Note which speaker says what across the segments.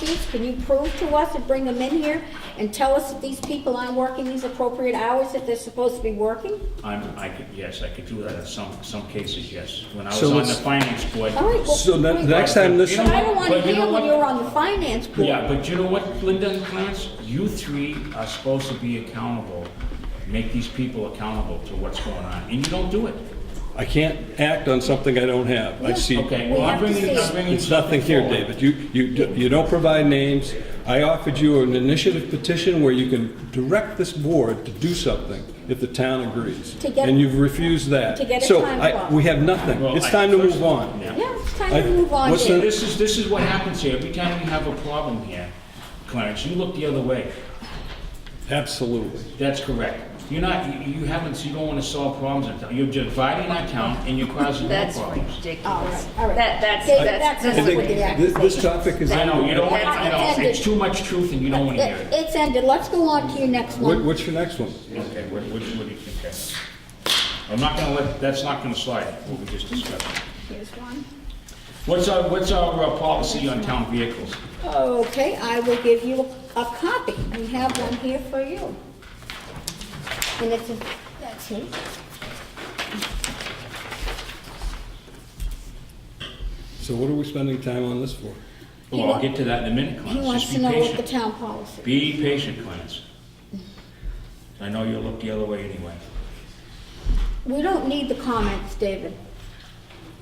Speaker 1: receipts, can you prove to us and bring them in here and tell us that these people aren't working these appropriate hours that they're supposed to be working?
Speaker 2: I'm, I could, yes, I could do that in some, some cases, yes. When I was
Speaker 3: So
Speaker 2: on the
Speaker 3: let's-
Speaker 2: finance board.
Speaker 1: All right, well.
Speaker 3: So the
Speaker 1: wait,
Speaker 3: next time this,
Speaker 2: You know-
Speaker 1: I don't want to
Speaker 2: But you know
Speaker 1: hear when
Speaker 2: what?
Speaker 1: you're on the finance board.
Speaker 2: Yeah, but you know what, Linda and Clarence, you three are supposed to be accountable, make these people accountable to what's going on, and you don't do it.
Speaker 3: I can't act on something I don't have. I see,
Speaker 2: Okay,
Speaker 1: We
Speaker 2: well,
Speaker 1: have
Speaker 2: I'm
Speaker 1: to
Speaker 2: bringing,
Speaker 1: see
Speaker 2: I'm
Speaker 1: it.
Speaker 2: bringing.
Speaker 3: it's nothing here,
Speaker 2: forward.
Speaker 3: David. You, you, d- you don't provide names. I offered you an initiative petition where you can direct this board to do something if the town agrees.
Speaker 1: To get-
Speaker 3: And you've refused that.
Speaker 1: to get a
Speaker 3: So
Speaker 1: time
Speaker 3: I-
Speaker 1: clock.
Speaker 3: We have nothing.
Speaker 2: Well,
Speaker 3: It's
Speaker 2: I-
Speaker 3: time to
Speaker 2: first-
Speaker 3: move on.
Speaker 2: Yeah.
Speaker 1: Yeah, it's time
Speaker 3: I-
Speaker 1: to move on,
Speaker 3: what's the-
Speaker 1: David.
Speaker 2: This is, this is what happens here, every time we have a problem here, Clarence, you look the other way.
Speaker 3: Absolutely.
Speaker 2: That's correct. You're not, you you haven't, you don't want to solve problems in town. You're dividing our town and you're causing more
Speaker 4: That's
Speaker 2: problems.
Speaker 1: All
Speaker 4: ridiculous.
Speaker 1: right, all right.
Speaker 4: That, that's,
Speaker 1: David,
Speaker 4: that's,
Speaker 1: that's
Speaker 3: I
Speaker 4: that's
Speaker 1: not
Speaker 3: think
Speaker 1: what the
Speaker 4: ridiculous.
Speaker 1: act-
Speaker 3: thi- this topic is.
Speaker 2: I know, you don't want,
Speaker 1: That's
Speaker 2: I know,
Speaker 1: intended.
Speaker 2: it's too much truth and you don't want to hear
Speaker 1: It-
Speaker 2: it.
Speaker 1: It's ended, let's go on to your next
Speaker 3: What-
Speaker 1: one.
Speaker 3: What's your next one?
Speaker 2: Okay, what, what what do you think? okay. I'm not going to let, that's not going to slide, what we just discussed.
Speaker 1: Here's one.
Speaker 2: What's our, what's our uh, policy on town vehicles?
Speaker 1: Okay, I will give you a copy. We have one here for you. And it's, a- that's it.
Speaker 3: So what are we spending time on this for?
Speaker 1: He
Speaker 2: Well,
Speaker 1: wa-
Speaker 2: I'll get to that in a minute,
Speaker 1: He
Speaker 2: Clarence,
Speaker 1: wants
Speaker 2: just
Speaker 1: to
Speaker 2: be
Speaker 1: know what the
Speaker 2: patient.
Speaker 1: town policy.
Speaker 2: Be patient, Clarence. I know you'll look the other way anyway.
Speaker 1: We don't need the comments, David.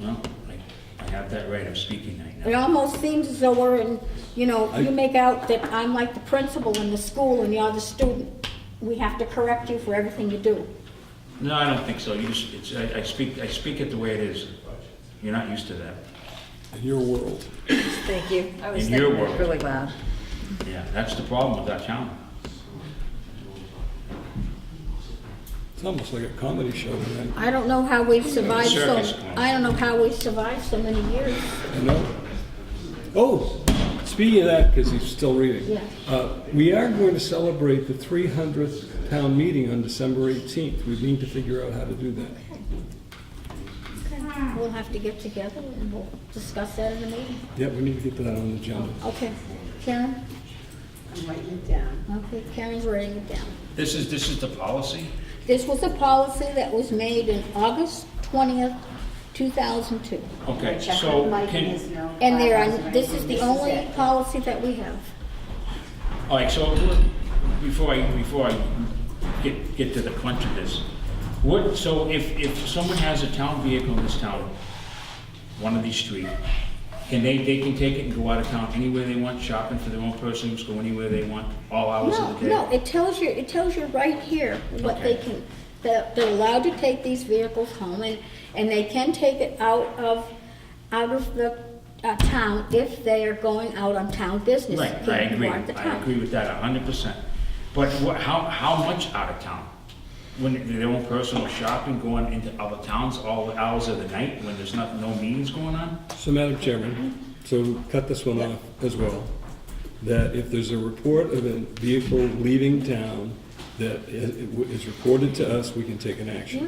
Speaker 2: Well, I- I have that right, I'm speaking right now.
Speaker 1: It almost seems as though we're in, you know, you make out that I'm like the principal in the school and you're the student. We have to correct you for everything you do.
Speaker 2: No, I don't think so. You just, it's, I, I speak, I speak it the way it is. You're not used to that.
Speaker 3: In your world?
Speaker 4: Thank you. I was
Speaker 2: In your
Speaker 4: thinking it was
Speaker 2: world.
Speaker 4: really loud.
Speaker 2: Yeah, that's the problem with our town.
Speaker 3: It's almost like a comedy show, man.
Speaker 1: I don't know how we've survived so,
Speaker 2: circus clown.
Speaker 1: I don't know how we've survived so many years.
Speaker 3: No. Oh, speaking of that, because he's still reading.
Speaker 1: Yeah.
Speaker 3: uh, We are going to celebrate the 300th town meeting on December 18th. We need to figure out how to do that.
Speaker 1: We'll have to get together and we'll discuss that in the meeting.
Speaker 3: Yeah, we need to get that on the agenda.
Speaker 1: Okay, Karen?
Speaker 5: I'm writing it down.
Speaker 1: Okay, Karen's writing it down.
Speaker 2: This is, this is the policy?
Speaker 1: This was a policy that was made in August twentieth, two thousand two.
Speaker 2: Okay,
Speaker 5: Check
Speaker 2: so
Speaker 5: with Mike and his
Speaker 2: can,
Speaker 5: note.
Speaker 1: And there are,
Speaker 5: Bylaws and
Speaker 1: this is the
Speaker 5: everything.
Speaker 1: only
Speaker 5: it.
Speaker 1: policy that we have.
Speaker 2: all right, so before I, before I get, get to the crunch of this, what, so if, if someone has a town vehicle in this town, one of these street, can they, they can take it and go out of town anywhere they want, shopping for their own persons, go anywhere they want, all hours
Speaker 1: No,
Speaker 2: of the day?
Speaker 1: no, it tells you, it tells you right here what they
Speaker 2: Okay.
Speaker 1: can, that they're allowed to take these vehicles home and, and they can take it out of, out of the uh, town if they are going out on town business.
Speaker 2: Right, I
Speaker 1: Can't
Speaker 2: agree,
Speaker 1: go out the
Speaker 2: I
Speaker 1: town.
Speaker 2: agree with that a hundred percent. But what, how, how much out of town? When their own personal shopping, going into other towns all the hours of the night, when there's not, no meetings going on?
Speaker 3: So, Madam Chairman, so cut this one off as well, that if there's a report of a vehicle leaving town that i- is reported to us, we can take an action.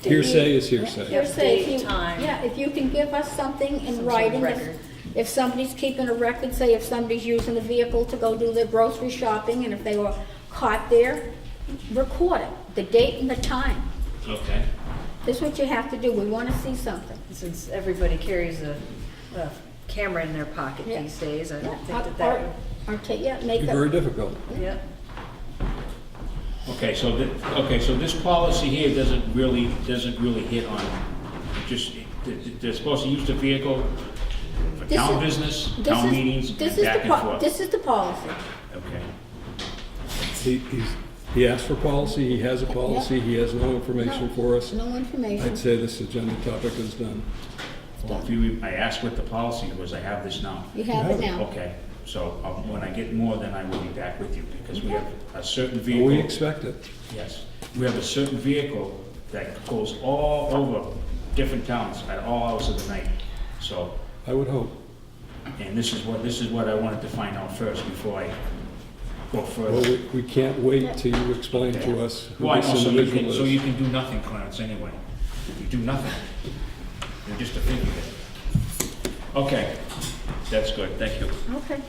Speaker 3: Hearsay is hearsay.
Speaker 1: Hearsay, if
Speaker 4: Date,
Speaker 1: you-
Speaker 4: time.
Speaker 1: Yeah, if you can give us something in
Speaker 4: of
Speaker 1: writing, if-
Speaker 4: record.
Speaker 1: if somebody's keeping a record, say if somebody's using a vehicle to go do their grocery shopping, and if they were caught there, record it, the date and the time.
Speaker 2: Okay.
Speaker 1: That's what you have to do, we wanna see something.
Speaker 4: Since everybody carries a, a camera in their pocket
Speaker 1: Yeah.
Speaker 4: these days, I
Speaker 1: Yeah,
Speaker 4: don't think that
Speaker 1: or-
Speaker 4: that
Speaker 1: Or, ta- yeah, make
Speaker 3: Be
Speaker 1: a,
Speaker 3: Very difficult.
Speaker 4: would, yeah.
Speaker 2: Okay, so thi, okay, so this policy here doesn't really, doesn't really hit on, just, th- th- they're supposed to use the vehicle for
Speaker 1: This
Speaker 2: town
Speaker 1: is-
Speaker 2: business,
Speaker 1: this
Speaker 2: town
Speaker 1: is-
Speaker 2: meetings, and
Speaker 1: this is the
Speaker 2: back and
Speaker 1: po-
Speaker 2: forth.
Speaker 1: This is the policy.
Speaker 2: Okay,
Speaker 3: He, he's, he asked for policy, he has a policy, he has no information for us.
Speaker 1: No information.
Speaker 3: I'd say this agenda topic is done.
Speaker 2: well, if you, I asked what the policy was, I have this now.
Speaker 1: You have it
Speaker 3: You have
Speaker 1: now.
Speaker 2: Okay, so um, when I get more, then I will be back with you, because we have a certain vehicle.
Speaker 3: We expect it.
Speaker 2: Yes, we have a certain vehicle that goes all over different towns at all hours of the night. So,
Speaker 3: I would hope.
Speaker 2: and this is what, this is what I wanted to find out first before I go
Speaker 3: Well,
Speaker 2: further.
Speaker 3: we, we can't wait till you explain to us who
Speaker 2: Well, I
Speaker 3: this
Speaker 2: know, so you can, so
Speaker 3: individual
Speaker 2: you
Speaker 3: is.
Speaker 2: can do nothing, Clarence, anyway. You do nothing. You're just a figurehead. Okay, that's good, thank you.
Speaker 1: Okay.